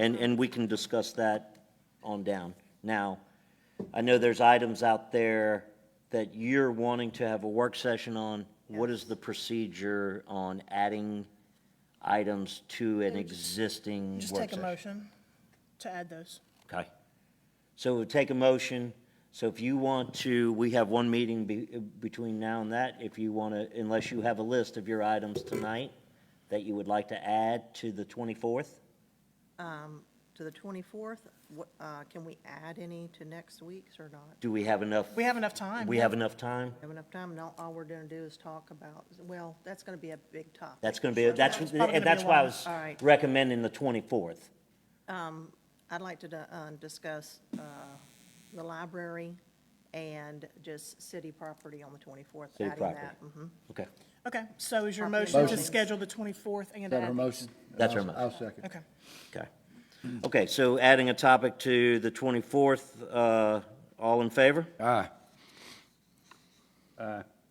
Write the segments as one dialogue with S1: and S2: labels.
S1: And, and we can discuss that on down. Now, I know there's items out there that you're wanting to have a work session on. What is the procedure on adding items to an existing work
S2: Just take a
S1: session?
S2: motion to add those.
S1: Okay. So we'll take a motion. So if you want to, we have one meeting be, between now and that. If you want to, unless you have a list of your items tonight that you would like to add to the twenty-fourth?
S3: to the 24th. What, uh, Can we add any to next week's or not?
S1: Do we have enough?
S2: We have enough time.
S1: We have enough time?
S3: Have enough time? No, all we're going to do is talk about, well, that's going to be a big topic.
S1: That's going to be, that's,
S2: It's probably
S1: and
S2: gonna
S1: that's
S2: be
S1: why I
S2: long.
S1: was
S3: All right.
S1: recommending the twenty-fourth.
S3: I'd like to di- uh, discuss uh, the library and just city property on the 24th.
S1: City
S3: adding
S1: property.
S3: that. Mhm.
S1: Okay.
S2: Okay, so is your
S3: Property
S2: motion to
S3: Motion.
S2: schedule the 24th and
S4: Is that her
S2: add?
S4: motion?
S1: That's her
S4: I'll-
S1: motion.
S4: I'll second.
S2: Okay.
S1: Okay. Okay, so adding a topic to the 24th, uh, all in favor?
S4: Aye.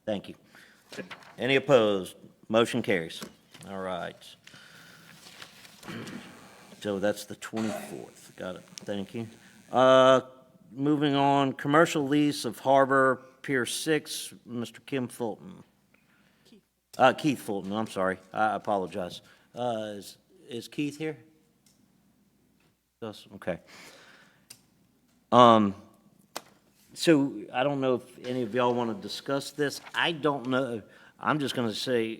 S1: Thank you. Any opposed? Motion carries. All right. So that's the 24th. Got it. Thank you. Uh, Moving on, commercial lease of Harbor Pier 6, Mr. Kim Fulton. Uh, Keith Fulton, I'm sorry. I apologize. Uh, Is is Keith here? Yes, okay. Um, so I don't know if any of y'all want to discuss this. I don't know. I'm just going to say,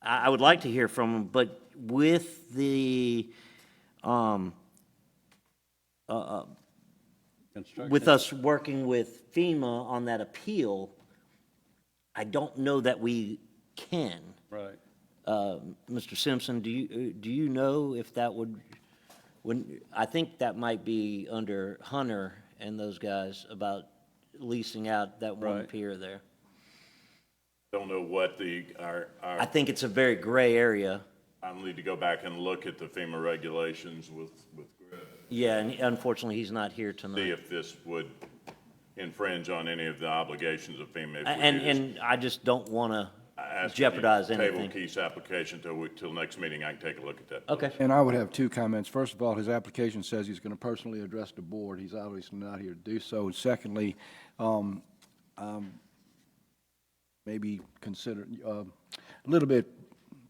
S1: I, I would like to hear from him, but with the, um, uh, with us working with FEMA on that appeal, I don't know that we can.
S5: Right.
S1: Uh, Mr. Simpson, do you, uh, do you know if that would, when, I think that might be under Hunter and those guys about leasing out that one
S5: Right.
S1: pier there.
S6: Don't know what the, our,
S1: I
S6: our,
S1: think it's a very gray area.
S6: I'll need to go back and look at the FEMA regulations with, with Griff,
S1: Yeah, and unfortunately, he's not here
S6: see
S1: tonight.
S6: if this would infringe on any of the obligations of FEMA. if we
S1: And,
S6: do this.
S1: and I just don't want
S6: I
S1: to
S6: ask that you
S1: jeopardize
S6: Table
S1: anything.
S6: Keith's application till, we- till next meeting, I can take a look at that.
S1: Okay,
S4: And I would have two comments. First of all, his application says he's going to personally address the board. He's obviously not here to do so. And secondly, um, um, maybe consider, uh, a little bit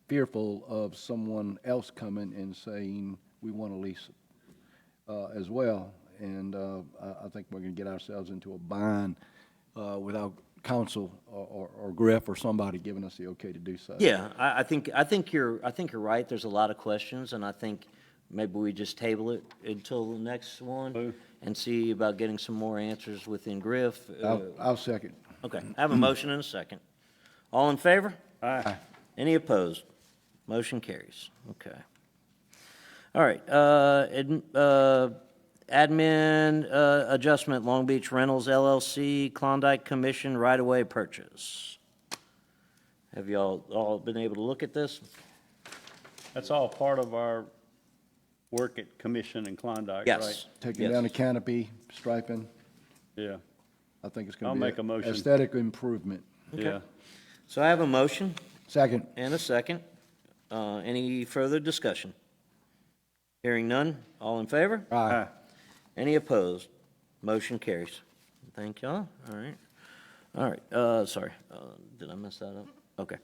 S4: fearful of someone else coming and saying, we want to lease uh, as well. And uh, I I think we're going to get ourselves into a bind uh, without council or- or or Griff or somebody giving us the okay to do so.
S1: yeah, I, I think, I think you're, I think you're right. There's a lot of questions, and I think maybe we just table it until the next one and see about getting some more answers within Griff. uh,
S4: I'll I'll second.
S1: Okay, I have a motion and a second. All in favor?
S5: Aye.
S1: Any opposed? Motion carries. Okay. All right, uh, adm- uh, admin uh, adjustment, Long Beach Rentals LLC, Klondike Commission right-of-way purchase. Have y'all all been able to look at this?
S5: That's all part of our work at Commission and Klondike, right?
S1: Yes.
S4: Taking down the
S1: Yes.
S4: canopy, striping,
S5: Yeah,
S4: I think it's going to
S5: I'll
S4: be.
S5: make a motion.
S4: Aesthetic improvement.
S5: yeah.
S1: So I have a motion
S4: Second.
S1: and a second. Uh, Any further discussion? Hearing none, all in favor?
S5: Aye.
S1: Any opposed? Motion carries. Thank y'all. All right. All right, uh, sorry, uh, did I mess that up? Okay.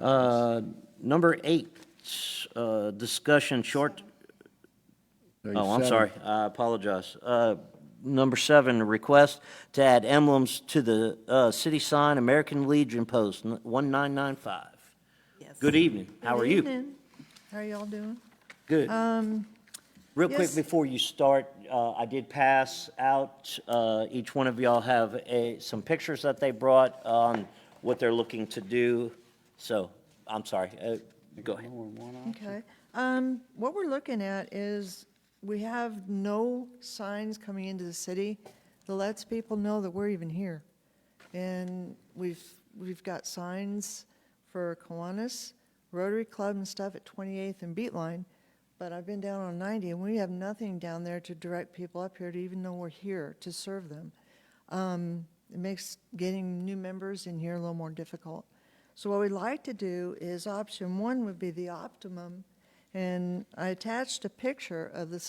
S1: Uh, number eight, uh, discussion short,
S4: There you
S1: oh, I'm
S4: said it.
S1: sorry, I apologize. Uh, number seven, request to add emblems to the, uh, city sign, American Legion Post, one nine nine five.
S3: Yes.
S1: Good evening, how are you?
S3: How are y'all doing?
S1: Good. Real quick,
S3: yes.
S1: before you start, uh, I did pass out, uh, each one of y'all have a, some pictures that they brought on what they're looking to do. So, I'm sorry, uh, go ahead.
S7: Okay. Um, What we're looking at is, we have no signs coming into the city that lets people know that we're even here. And we've, we've got signs for Kiwanis Rotary Club and stuff at 28th and Beatline, but I've been down on 90, and we have nothing down there to direct people up here to even know we're here to serve them. Um, It makes getting new members in here a little more difficult. So what we'd like to do is option one would be the optimum, And I attached a picture of the